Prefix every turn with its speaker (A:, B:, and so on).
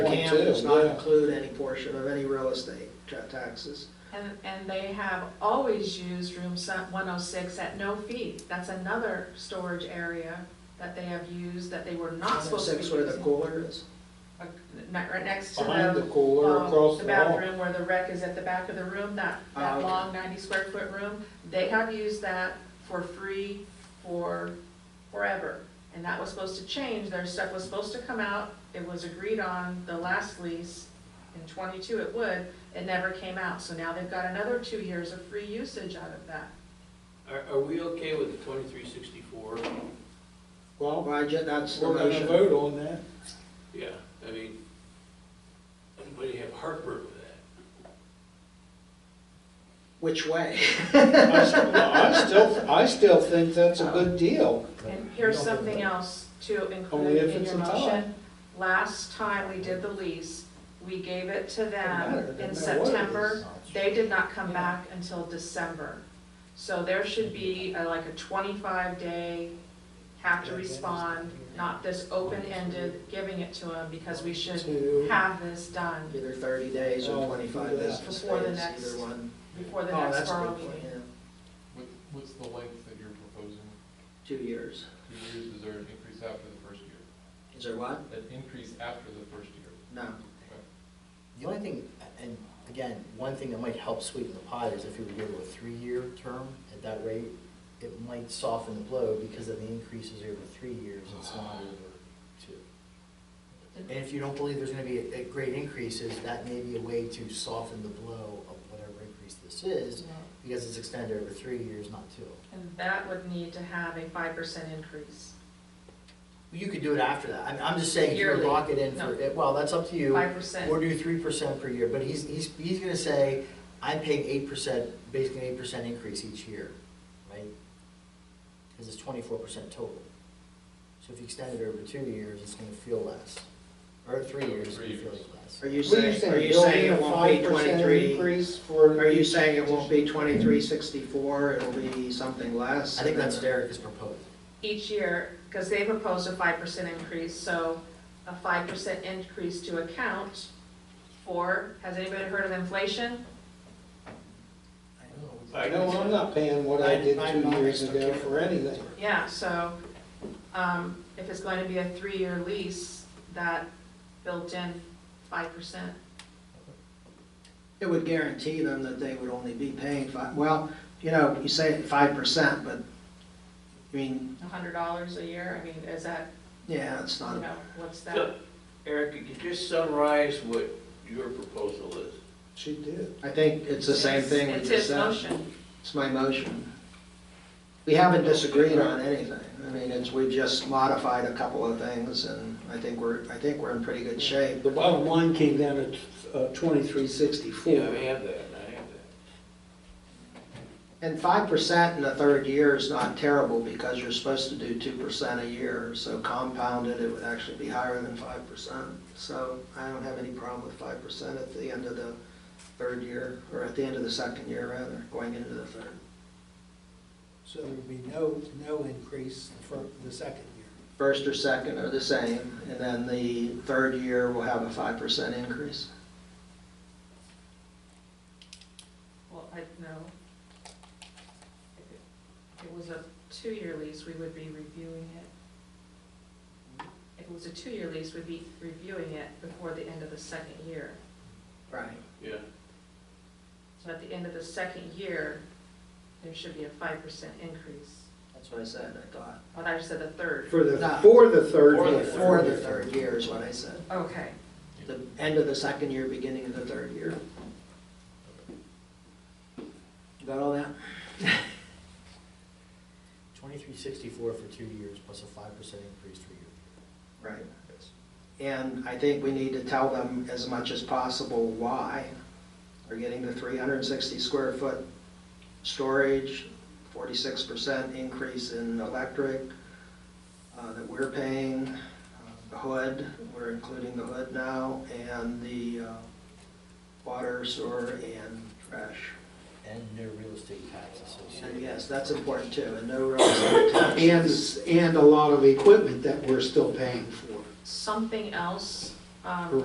A: Cam
B: too,
A: does not
B: yeah.
A: include any portion of any real estate ta- taxes.
C: And, and they have always used room se- 106 at no fee. That's another storage area that they have used that they were not supposed to be
A: oh Six where the
C: using.
A: cooler is.
C: Uh, ne- Right next to
B: Behind the
C: the,
B: cooler,
C: um,
B: across
C: the
B: the hall.
C: bathroom where the rec is at the back of the room, that,
A: Ah,
C: that
A: okay.
C: long 90 square foot room. They have used that for free for forever. And that was supposed to change. Their stuff was supposed to come out. It was agreed on the last lease in twenty-two it would, it never came out, so now they've got another two years of free usage out of that.
D: Are, are we okay with the twenty-three sixty-four?
B: Well,
A: Well, I ju- that's the
B: we're gonna
A: motion.
B: vote on that.
D: Yeah, I mean, anybody have heartburn with that?
A: Which way?
B: I still- no, I still, I still think that's a good deal.
C: And here's something else to
B: Only
C: include
B: if
C: in
B: it's
C: your
B: a tie.
C: motion. Last time we did the lease, we gave it to
B: matter, doesn't
C: them in
B: matter what it
C: September,
B: is.
C: they did not come back until December. So there should be uh, like a twenty-five day, have to respond, not this open-ended, giving it to them, because we should
B: Two.
C: have this done
A: Either thirty days
B: Oh,
A: or
B: we'll do that.
A: twenty-five business days,
C: Before the next-
A: either one.
C: before the
A: Oh,
C: next
A: that's a
C: borough
A: good point,
C: meeting.
A: yeah.
E: What, what's the length that you're proposing?
A: Two years.
E: Two years, is there an increase after the first year?
A: Is there what?
E: An increase after the first year?
A: No.
E: Okay.
F: The only thing, and again, one thing that might help sweeten the pot is if you were to go to a three-year term at that rate, it might soften the blow because of the increases over three years, it's not over two. And if you don't believe there's gonna be a, a great increases, that may be a way to soften the blow of whatever increase this is, because it's extended over three years, not two.
C: And that would need to have a five percent increase,
F: You could do it after that, I'm, I'm just saying, if you
C: Yearly.
F: lock it in for, well, that's up to you.
C: five percent.
F: Or do three percent per year, but he's, he's, he's gonna say, I'm paying eight percent, basically eight percent increase each year, right? Because it's twenty-four percent total. So if you extend it over two years, it's gonna feel less, or three years, it's gonna
E: Three
F: feel
E: years.
F: less.
A: Are you
B: What do you
A: saying,
B: think,
A: are you
B: Bill?
A: saying
B: A
A: it won't be
B: 5%
A: twenty-three?
B: Increase for.
A: Are you saying it won't be twenty-three sixty-four, it'll be something less?
F: I think
A: and
F: that's
A: then-
F: Derek's proposal.
C: Each year, because they proposed a five percent increase, so a five percent increase to account for, has anybody heard of inflation?
D: I
B: No, I'm not paying what I did two years ago for anything.
C: Yeah, so, um, if it's going to be a three-year lease, that built in five percent.
A: It would guarantee them that they would only be paying five, well, you know, you say five percent, but, I mean,
C: A hundred dollars a year, I mean, is that,
A: yeah, it's
C: you
A: not,
C: know, what's that?
D: So, Eric, could you just summarize what your proposal is?
B: She did.
A: I think it's the same thing we
C: It's
A: just
C: his
A: said.
C: motion.
A: It's my motion. We haven't disagreed on anything, I mean, it's, we've just modified a couple of things, and I think we're, I think we're in pretty good shape.
B: The bottom line came down at twenty-three
D: Yeah,
B: sixty-four.
D: I have that, I have that.
A: And five percent in the third year is not terrible, because you're supposed to do two percent a year, so compounded, it would actually be higher than five percent. So I don't have any problem with five percent at the end of the third year, or at the end of the second year, rather, going into the third.
G: So there would be no, no increase for the second year.
A: First or second are the same, and then the third year will have a five percent increase.
C: Well, I, no. If it- if it was a two-year lease, we would be reviewing it. If it was a two-year lease, we'd be reviewing it before the end of the second year.
A: Right.
D: Yeah,
C: So at the end of the second year, there should be a five percent increase.
A: That's what I said, I thought.
C: Oh, I just said the third.
B: For the, for the third
D: For the
B: year.
A: For the third year is what I said.
C: Okay.
A: The end of the second year, beginning of the third year. You Got all that?
F: Twenty-three sixty-four for two years plus a five percent increase per year.
A: Right. And I think we need to tell them as much as possible why they're getting the 360 square foot storage, 46% increase in electric uh, that we're paying, uh, the hood, we're including the hood now, and the uh, water, sewer, and trash.
F: And no real estate tax associated.
A: And yes, that's important too, and no real estate
B: And,
A: taxes.
B: s- and a lot of equipment that we're still paying for.
C: Something else, um,